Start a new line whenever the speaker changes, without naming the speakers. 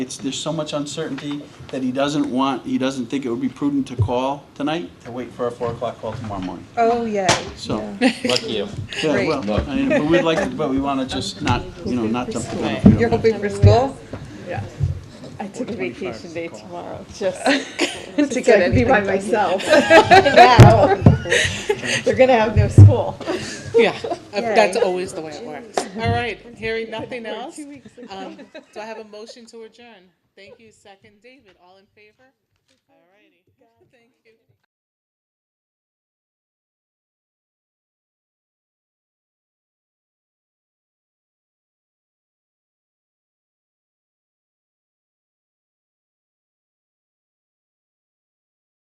It's, there's so much uncertainty that he doesn't want, he doesn't think it would be prudent to call tonight, to wait for a four o'clock call tomorrow morning.
Oh, yay.
So,
Lucky you.
yeah,
Great.
well, I mean, but we'd like, to- but we want to just not, you know, not jump the gun. if we don't
You're
have to.
hoping for school?
Yeah. I took a vacation day tomorrow, just
To
to
get
get be by
anything done.
myself. Now, They're gonna have no school.
Yeah, uh, that's
Yay.
always the way it works. All right, hearing nothing else, um, do I have a motion to adjourn? Thank you, second David, all in favor?